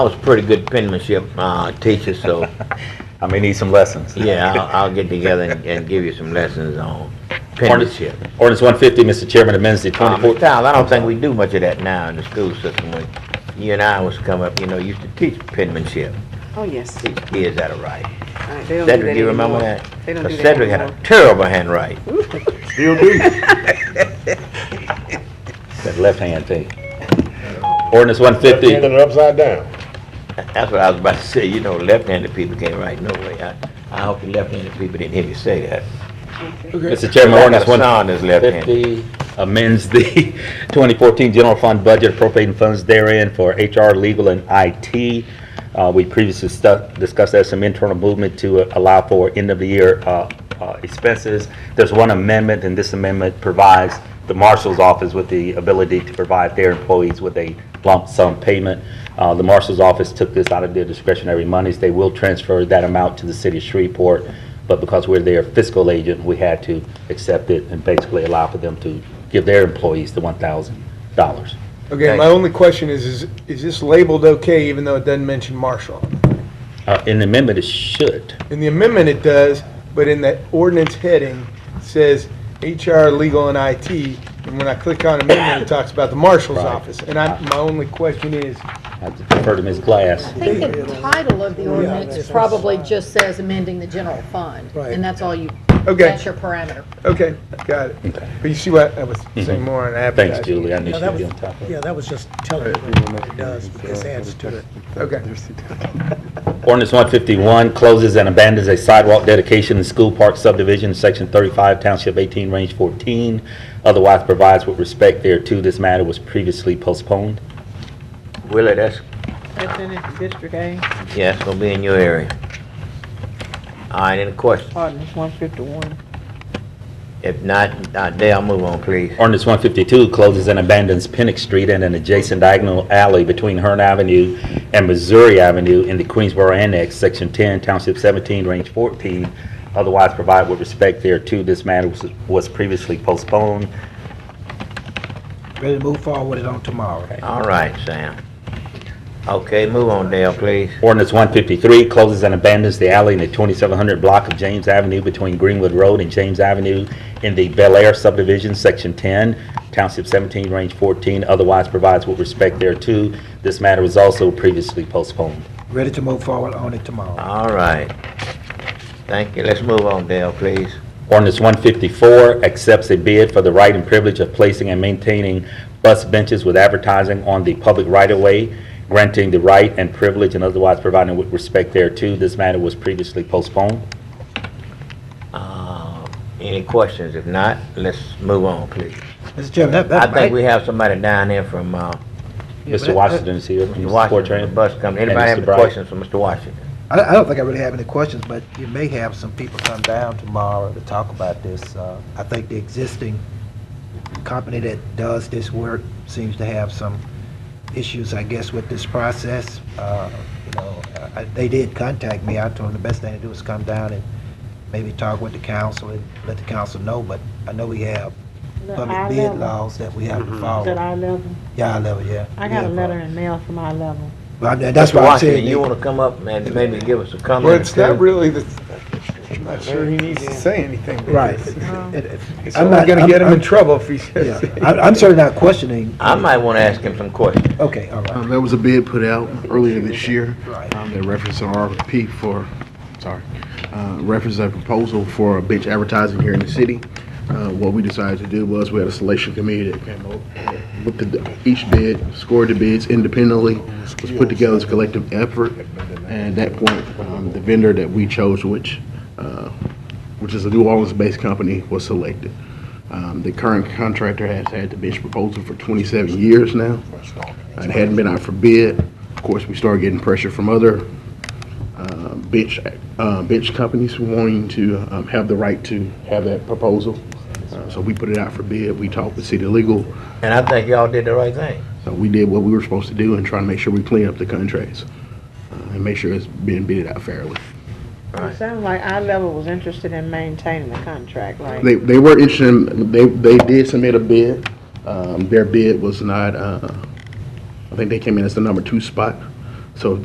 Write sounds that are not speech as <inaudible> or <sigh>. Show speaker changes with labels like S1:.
S1: I was pretty good penmanship, uh, teacher, so,
S2: I may need some lessons.
S1: yeah, I'll, I'll get together and, and give you some lessons on penmanship.
S3: Ordinance 150, Mr. Chairman, amends the
S1: Uh,
S3: 24...
S1: Mr. Stiles, I don't think we do much of that now in the school system. When you and I was coming up, you know, used to teach penmanship,
S4: Oh, yes.
S1: teach kids how to write.
S4: All right, they don't do
S1: Cedric,
S4: that
S1: you remember
S4: anymore.
S1: that?
S4: They don't
S1: 'Cause
S4: do that
S1: Cedric had a
S4: anymore.
S1: terrible handwriting.
S5: Still do.
S2: That left hand thing.
S3: Ordinance
S5: Left hand
S3: 150,
S5: and upside down.
S1: That's what I was about to say, you know, left-handed people can't write no way. I, I hope the left-handed people didn't hear me say that.
S3: Mr. Chairman, ordinance
S1: I got a son that's left-handed.
S3: 150 amends the <laughs> 2014 general fund budget appropriating funds therein for HR, legal, and IT. Uh, We previously stu- discussed that some internal movement to uh, allow for end-of-the-year uh, uh, expenses. There's one amendment, and this amendment provides the marshal's office with the ability to provide their employees with a lump sum payment. Uh, The marshal's office took this out of their discretionary monies. They will transfer that amount to the city of Shreveport, but because we're their fiscal agent, we had to accept it and basically allow for them to give their employees the $1,000.
S6: Okay, my only question is, is, is this labeled okay even though it doesn't mention Marshall?
S3: Uh, In the amendment, it should.
S6: In the amendment it does, but in the ordinance heading it says HR, legal and IT. And when I click on amendment, it talks about the marshal's
S3: Right.
S6: office. And I, my only question is,
S3: I have to defer to Ms. Glass.
S7: I think the title of the ordinance probably just says amending the general fund. And that's all you,
S6: Okay.
S7: that's your parameter.
S6: okay, got it.
S3: Okay.
S6: But you see what, I was saying more on advertising.
S3: Thanks, Julie, I knew
S8: Yeah,
S3: she'd
S8: that
S3: be
S8: was-
S3: on top of it.
S8: Yeah, that was just
S5: Um,
S8: telling you what it does, but this adds to it.
S6: Okay.
S3: Ordinance 151 closes and abandons a sidewalk dedication in School Park subdivision, Section 35, Township 18, Range 14. Otherwise provides with respect thereto. This matter was previously postponed.
S1: Willie, that's,
S4: That's in it, District A,
S1: yeah, that's gonna be in your area. All right, any questions?
S4: ordinance one fifty-one.
S1: If not, uh, Dale, move on, please.
S3: Ordinance 152 closes and abandons Pennick Street and an adjacent diagonal alley between Hearn Avenue and Missouri Avenue in the Queensboro Annex, Section 10, Township 17, Range 14. Otherwise provide with respect thereto. This matter was- was previously postponed.
S8: Ready to move forward with it on tomorrow.
S1: All right, Sam. Okay, move on, Dale, please.
S3: Ordinance 153 closes and abandons the alley in the 2700 block of James Avenue between Greenwood Road and James Avenue in the Bel Air subdivision, Section 10, Township 17, Range 14, otherwise provides with respect thereto. This matter was also previously postponed.
S8: Ready to move forward on it tomorrow.
S1: All right. Thank you. Let's move on, Dale, please.
S3: Ordinance 154 accepts a bid for the right and privilege of placing and maintaining bus benches with advertising on the public right-of-way, granting the right and privilege and otherwise providing with respect thereto. This matter was previously postponed.
S1: Uh, Any questions? If not, let's move on, please.
S8: Mr. Chairman, that,
S1: I
S8: that.
S1: think we have somebody down there from, uh,
S8: Yeah, but
S3: Mr.
S8: that-
S3: Washington is here. from
S1: Mr.
S3: the
S1: Washington, the
S3: Fortran.
S1: bus company. Anybody
S3: Mr.
S1: have any
S3: Bright.
S1: questions for Mr. Washington?
S8: I, I don't think I really have any questions, but you may have some people come down tomorrow to talk about this. Uh, I think the existing company that does this work seems to have some issues, I guess, with this process. Uh, You know, I- they did contact me. I told them the best thing to do is come down and maybe talk with the council and let the council know, but I know we have public bid laws that we have to
S4: At
S8: follow.
S4: our level,
S8: Yeah, I level, yeah.
S4: I got a
S8: Yeah.
S4: letter in mail from our level.
S8: Well, I- That's
S1: Mr.
S8: what I'm
S1: Washington,
S8: saying.
S1: You
S8: They-
S1: wanna come up and maybe give us a comment?
S6: Well, it's
S1: or
S6: not
S1: two?
S6: really the, I'm not sure he needs to say anything. because
S8: <laughs> Right.
S4: Um,
S6: It's
S8: I'm
S6: only
S8: not-
S6: gonna
S8: I'm-
S6: get him in
S8: I'm-
S6: trouble if he
S8: Yeah,
S6: says.
S8: I- I'm certainly not questioning.
S1: I might wanna ask him some questions.
S8: Okay, all right.
S5: Um, There was a bid put out earlier this year.
S8: Right.
S5: um, That referenced an RFP for, sorry, uh, referenced a proposal for a bench advertising here in the city. Uh, What we decided to do was, we had a selection committee that came up, uh, looked at the- each bid, scored the bids independently, was put together as a collective effort. And at that point, um, the vendor that we chose, which, uh, which is a New Orleans-based company, was selected. Um, The current contractor has had the bench proposal for 27 years now. Uh, It hadn't been out for bid. Of course, we started getting pressure from other uh, bench, uh, bench companies wanting to um, have the right to have that proposal. Uh, So we put it out for bid. We talked with city legal.
S1: And I think y'all did the right thing.
S5: So we did what we were supposed to do and try to make sure we clean up the contracts uh, and make sure it's being bid out fairly.
S4: It sounds like our level was interested in maintaining the contract, right?
S5: They, they were interested, in- they, they did submit a bid. Um, Their bid was not, uh, I think they came in as the number two spot. So